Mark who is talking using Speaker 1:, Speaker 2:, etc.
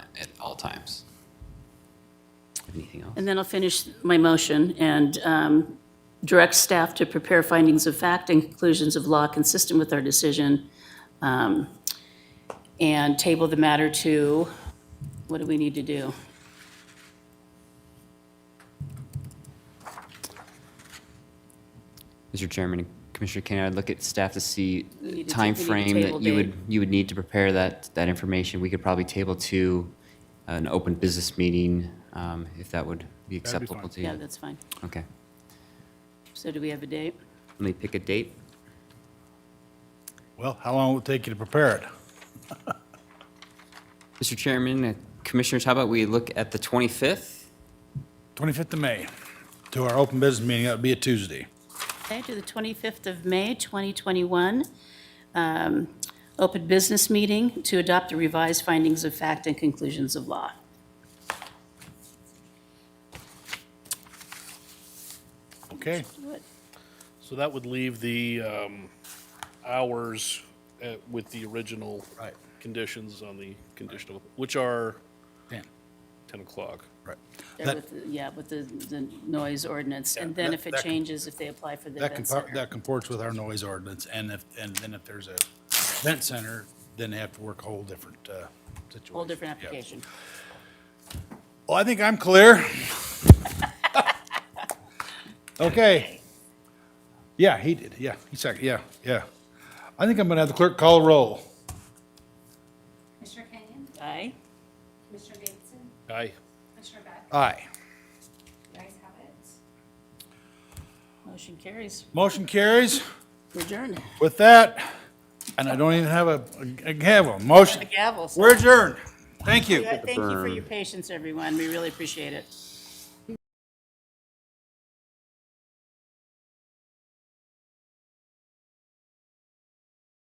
Speaker 1: all times. Anything else?
Speaker 2: And then I'll finish my motion and um, direct staff to prepare findings of fact and conclusions of law consistent with our decision, um, and table the matter to, what do we need to do?
Speaker 1: Mr. Chairman, Commissioner Kane, I'd look at staff to see
Speaker 2: need to ta- we
Speaker 1: time
Speaker 2: need to
Speaker 1: frame
Speaker 2: table
Speaker 1: that you would,
Speaker 2: date.
Speaker 1: you would need to prepare that, that information. We could probably table to uh, an open business meeting, um, if that would be
Speaker 3: That'd be
Speaker 1: acceptable
Speaker 3: fine.
Speaker 1: to you.
Speaker 2: Yeah, that's fine.
Speaker 1: Okay.
Speaker 2: So do we have a date?
Speaker 1: Let me pick a date.
Speaker 3: Well, how long will it take you to prepare it?
Speaker 1: Mr. Chairman, uh, Commissioners, how about we look at the 25th?
Speaker 3: 25th of May, to our open business meeting, that would be a Tuesday.
Speaker 2: Okay, to the 25th of May, 2021, um, open business meeting to adopt the revised findings of fact and conclusions of law.
Speaker 4: Okay,
Speaker 2: What?
Speaker 4: so that would leave the um, hours uh, with the original
Speaker 3: Right.
Speaker 4: conditions on the conditional, which are
Speaker 3: Dan,
Speaker 4: 10 o'clock.
Speaker 3: right.
Speaker 2: There
Speaker 3: That-
Speaker 2: with the- Yeah, with the, the noise ordinance, and
Speaker 3: Yeah,
Speaker 2: then
Speaker 3: that-
Speaker 2: if it
Speaker 3: that com-
Speaker 2: changes, if they apply for the
Speaker 3: That
Speaker 2: event
Speaker 3: compar-
Speaker 2: center.
Speaker 3: that comports with our noise ordinance, and if, and then if there's a event center, then they have to work a whole different, uh, situation.
Speaker 2: Whole different
Speaker 3: Yeah.
Speaker 2: application.
Speaker 3: Well, I think I'm clear. Okay. Yeah, he did, yeah, he seconded, yeah, yeah. I think I'm gonna have the clerk call a roll.
Speaker 5: Commissioner Kenyon?
Speaker 2: Aye?
Speaker 5: Commissioner Davidson?
Speaker 4: Aye.
Speaker 5: Commissioner Beck?
Speaker 3: Aye.
Speaker 5: The ayes have it.
Speaker 2: Motion carries.
Speaker 3: Motion carries.
Speaker 2: Adjourn.
Speaker 3: With that, and I don't even have a, a gavel, motion,
Speaker 2: Gavels.
Speaker 3: we're adjourned. Thank you.
Speaker 2: Thank you for your patience, everyone. We really appreciate it.